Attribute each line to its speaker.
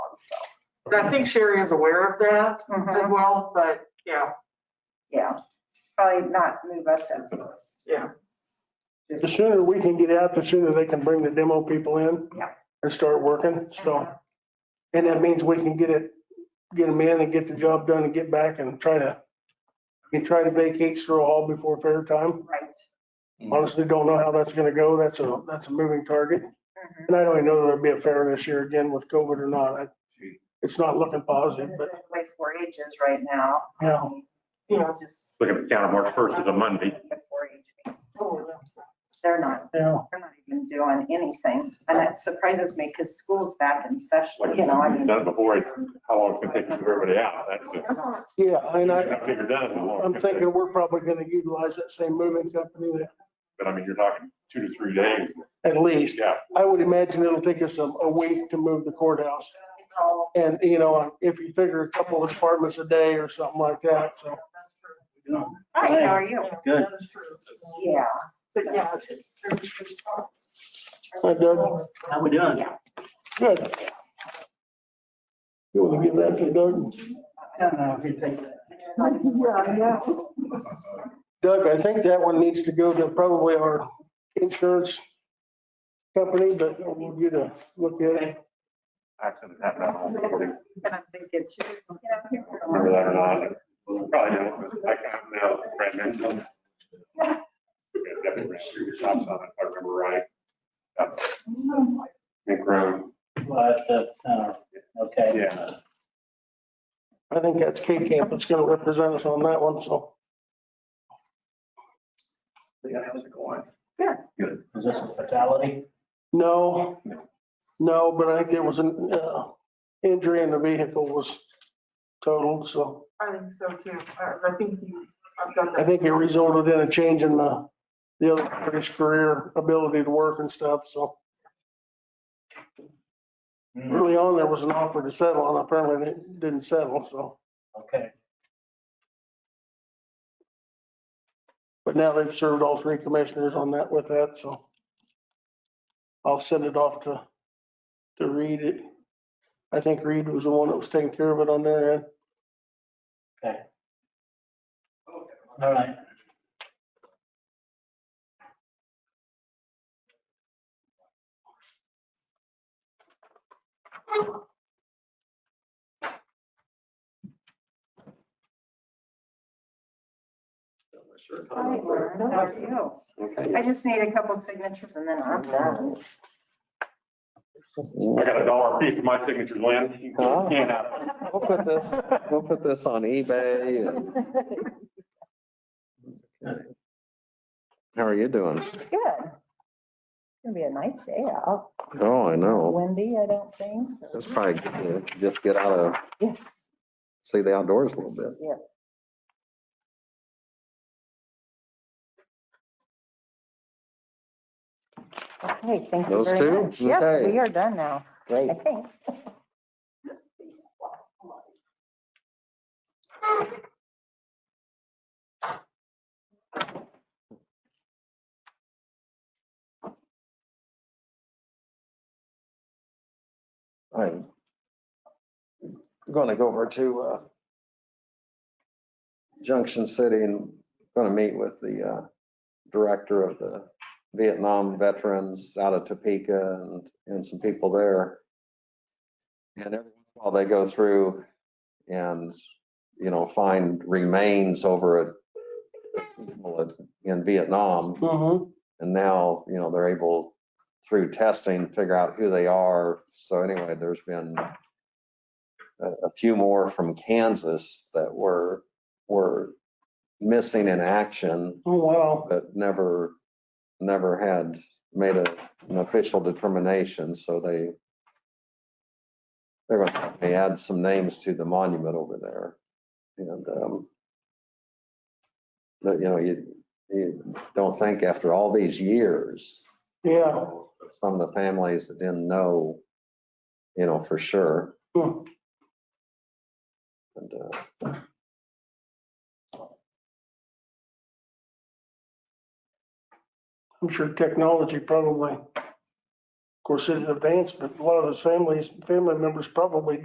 Speaker 1: so,
Speaker 2: And I think Sherry is aware of that as
Speaker 3: Uh-huh.
Speaker 1: mhm,
Speaker 2: well, but yeah,
Speaker 1: yeah. Probably not move us up first.
Speaker 2: yeah.
Speaker 3: The sooner we can get out, the sooner they can bring the demo people in.
Speaker 1: Yeah.
Speaker 3: And start working, so. And that means we can get it, get them in and get the job done and get back and try to, we try to vacate Stroh Hall before fair time.
Speaker 1: Right.
Speaker 3: Honestly, don't know how that's gonna go. That's a, that's a moving target.
Speaker 1: mhm.
Speaker 3: And I don't even know if there'll be a fair this year again with COVID or not. I-
Speaker 4: Gee.
Speaker 3: It's not looking positive, but
Speaker 1: Way four H is right now.
Speaker 3: Yeah.
Speaker 2: Yeah.
Speaker 1: It's just-
Speaker 5: Look at the calendar, March 1st is a Monday.
Speaker 1: The 4-H meeting.
Speaker 2: Oh, yeah.
Speaker 1: They're not,
Speaker 3: yeah.
Speaker 1: they're not even doing anything, and that surprises me, because school's back in session,
Speaker 5: Like,
Speaker 1: you know, I
Speaker 5: we've
Speaker 1: mean.
Speaker 5: done it before, how long it's gonna take to get everybody out, that's it.
Speaker 3: Yeah, and
Speaker 5: I
Speaker 3: I,
Speaker 5: haven't figured out how long.
Speaker 3: I'm
Speaker 5: it's gonna
Speaker 3: thinking
Speaker 5: take,
Speaker 3: we're probably gonna utilize that same moving company that-
Speaker 5: But I mean, you're talking two to three days,
Speaker 3: at least.
Speaker 5: yeah.
Speaker 3: I would imagine it'll take us a, a week to move the courthouse.
Speaker 1: It's all,
Speaker 3: And, you know, if you figure a couple of departments a day or something like that, so.
Speaker 1: hi, how are you?
Speaker 4: Good.
Speaker 1: Yeah.
Speaker 2: But yeah,
Speaker 3: Hi, Doug.
Speaker 4: How we doing?
Speaker 3: Good. You want to give that to Doug?
Speaker 4: I don't know if you take that.
Speaker 2: Yeah, yeah.
Speaker 3: Doug, I think that one needs to go to probably our insurance company, but we'll get a look at it.
Speaker 5: Accident happened. I don't know if you
Speaker 1: And I'm thinking,
Speaker 5: Remember that or not? Probably don't, but I can't now, brand new. Yeah, definitely ran through the shops on it, if I remember right. Up Nick Road,
Speaker 4: But, uh, okay.
Speaker 5: Yeah.
Speaker 3: I think that's K Camp that's gonna represent us on that one, so.
Speaker 5: yeah, how's it going?
Speaker 4: Is this a fatality?
Speaker 3: No, no, but I think there was an uh, injury and the vehicle was totaled, so
Speaker 2: I think so too. I I think you, I've got
Speaker 3: I
Speaker 2: that.
Speaker 3: think it resulted in a change in the, the other party's career ability to work and stuff, so
Speaker 4: Hmm,
Speaker 3: early on, there was an offer to settle and apparently it didn't settle, so.
Speaker 4: Okay.
Speaker 3: But now they've served all three commissioners on that with that, so. I'll send it off to, to Reed. It- I think Reed was the one that was taking care of it on their end.
Speaker 4: All right.
Speaker 1: Hi, Lauren, how are you?
Speaker 6: Okay.
Speaker 1: I just need a couple signatures and then I'm done.
Speaker 5: I got a dollar fee for my signature, Lynn. You can scan that.
Speaker 6: We'll put this, we'll put this on eBay. and- Okay. How are you doing?
Speaker 1: Good. It's gonna be a nice day out.
Speaker 6: Oh, I know.
Speaker 1: Windy, I don't think.
Speaker 6: It's probably good to just get out of,
Speaker 1: Yes,
Speaker 6: see the outdoors a little bit.
Speaker 1: yes. Okay, thank you
Speaker 6: Those
Speaker 1: very
Speaker 6: two?
Speaker 1: much. Yep,
Speaker 6: Okay.
Speaker 1: we are done now,
Speaker 6: Great.
Speaker 1: I think.
Speaker 6: I'm going to go over to uh, Junction City and going to meet with the uh, director of the Vietnam Veterans out of Topeka and, and some people there. And every once in a while they go through and, you know, find remains over at, in Vietnam.
Speaker 3: Mm-hmm.
Speaker 6: And now, you know, they're able through testing, figure out who they are. So anyway, there's been a, a few more from Kansas that were, were missing in action,
Speaker 3: Oh, wow.
Speaker 6: but never, never had made a, an official determination. So they, they're going to they add some names to the monument over there. And, um, but you know, you, you don't think after all these years,
Speaker 3: Yeah.
Speaker 6: some of the families that didn't know, you know, for sure.
Speaker 3: Hmm.
Speaker 6: And, uh,
Speaker 3: I'm sure technology probably, of course, it's advanced, but a lot of his families, family members probably